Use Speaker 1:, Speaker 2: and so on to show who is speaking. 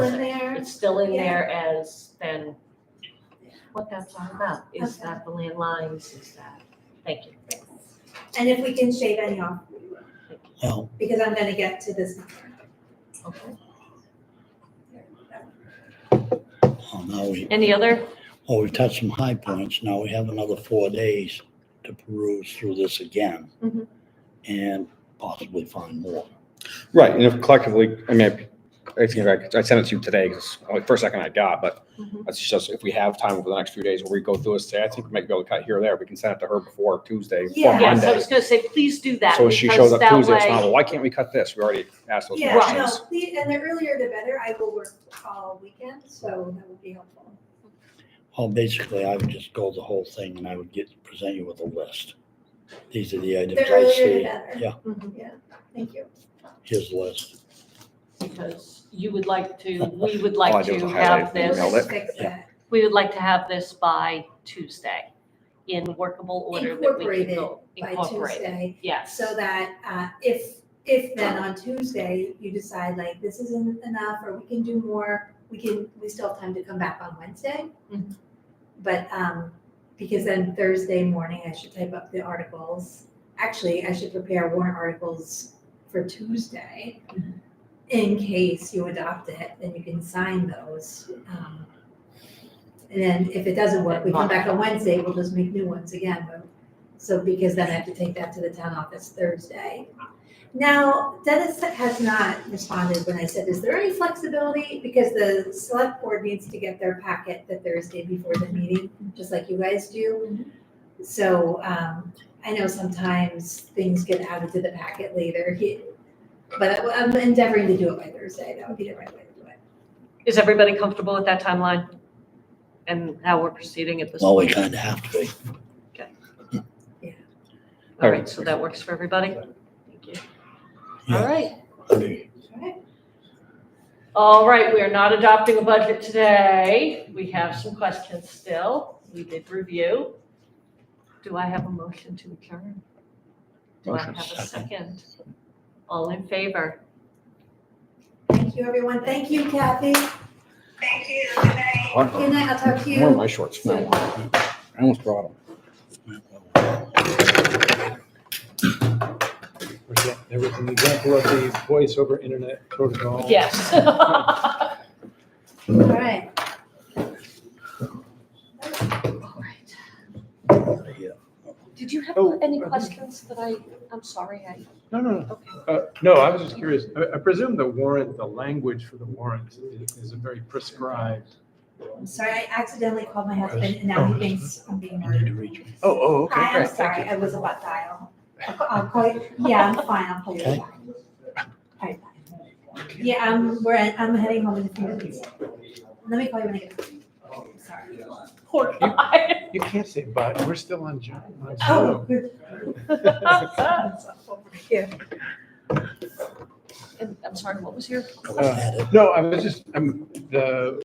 Speaker 1: it's still in there as then what that's all about. Is
Speaker 2: Okay.
Speaker 1: that the land lines, is that, thank you.
Speaker 2: And if we can shave any off, we will,
Speaker 3: Well,
Speaker 2: because I'm gonna get to this number.
Speaker 1: Okay.
Speaker 3: well, now we,
Speaker 1: Any other,
Speaker 3: well, we've touched some high points. Now we have another four days to peruse through this again.
Speaker 1: Mhm.
Speaker 3: And possibly find more.
Speaker 4: Right, and if collectively, I mean, I think I, I sent it to you today, because only first second I got, but
Speaker 1: Mhm.
Speaker 4: that's just, if we have time over the next few days where we go through this, today, I think we might be able to cut here or there, we can send it to her before Tuesday, before
Speaker 2: Yeah.
Speaker 1: yes, I
Speaker 4: Monday.
Speaker 1: was gonna say, please do that,
Speaker 4: So if she shows
Speaker 1: because
Speaker 4: up
Speaker 1: that
Speaker 4: Tuesday, it's not,
Speaker 1: way,
Speaker 4: well, why can't we cut this? We already asked those
Speaker 2: Yeah,
Speaker 1: Right.
Speaker 2: no,
Speaker 4: questions.
Speaker 2: please, and the earlier the better, I will work all weekend, so that would be helpful.
Speaker 3: Well, basically, I would just go the whole thing and I would get, present you with a list. These are the items
Speaker 2: The
Speaker 3: I
Speaker 2: earlier the
Speaker 3: see.
Speaker 2: better,
Speaker 3: yeah.
Speaker 1: Mm-hmm.
Speaker 2: thank you.
Speaker 3: Here's the list.
Speaker 1: because you would like to, we would
Speaker 4: All Oh, I
Speaker 1: like
Speaker 4: did was
Speaker 1: to
Speaker 4: highlight
Speaker 1: have
Speaker 4: it and
Speaker 1: this.
Speaker 4: emailed
Speaker 2: Let's Fix that.
Speaker 1: We would like to have this by Tuesday in workable order that we can
Speaker 2: Incorporated
Speaker 1: go
Speaker 2: by
Speaker 1: incorporate.
Speaker 2: Tuesday,
Speaker 1: Yes.
Speaker 2: so that uh, if, if then on Tuesday you decide like this isn't enough or we can do more, we can, we still have time to come back on Wednesday.
Speaker 1: Mhm.
Speaker 2: But, um, because then Thursday morning I should type up the articles. Actually, I should prepare warrant articles for Tuesday in case you adopt it, then you can sign those. um, And then if it doesn't work, we come back on Wednesday, we'll just make new ones again. but- So because then I have to take that to the town office Thursday. Now, Dennis has not responded when I said, is there any flexibility? Because the select board needs to get their packet the Thursday before the meeting, just like you guys do. So um, I know sometimes things get added to the packet later. He, but I- I'm endeavoring to do it by Thursday. That would be the right way to do it.
Speaker 1: Is everybody comfortable with that timeline? And how we're proceeding at this
Speaker 3: Well, we
Speaker 1: point?
Speaker 3: kind of have to be.
Speaker 1: All right, so that works for everybody? Thank you. All
Speaker 3: Yeah.
Speaker 1: right,
Speaker 2: All right.
Speaker 1: all right, we are not adopting a budget today. We have some questions still. We did review. Do I have a motion to adjourn? Do I have
Speaker 4: Motion.
Speaker 1: a second? All in favor?
Speaker 2: Thank you, everyone. Thank you, Kathy.
Speaker 5: Thank you, good night.
Speaker 4: Where
Speaker 2: Good night. I'll talk to you.
Speaker 4: are my shorts? No, I almost brought them.
Speaker 6: Forget everything example of the voice over internet protocol.
Speaker 1: Yes.
Speaker 2: All right.
Speaker 1: Did you have
Speaker 6: Oh,
Speaker 1: any
Speaker 6: I think-
Speaker 1: questions that I, I'm sorry, I,
Speaker 6: No, no, no.
Speaker 1: okay.
Speaker 6: Uh, No, I was just curious. I- I presume the warrant, the language for the warrant is- is a very prescribed.
Speaker 2: I'm sorry. I accidentally called my husband and
Speaker 3: Oh,
Speaker 2: now he thinks I'm being
Speaker 3: I need to
Speaker 2: murdered.
Speaker 3: reach.
Speaker 6: Oh, oh,
Speaker 2: Hi, I'm sorry. I was about to dial. I'll- I'll call you. Yeah, I'm fine. I'll call you
Speaker 3: Okay.
Speaker 2: back. All right, bye. Yeah, I'm, we're, at- I'm heading home in a few minutes. Let me call you when I get home. Sorry.
Speaker 1: Poor guy.
Speaker 6: You can't say but, we're still on Zoom. on
Speaker 2: Oh,
Speaker 6: Zoom.
Speaker 2: good.
Speaker 1: Ah.
Speaker 2: Yeah.
Speaker 1: And I'm sorry, what was your
Speaker 3: Go ahead.
Speaker 6: No, I was just, I'm, the,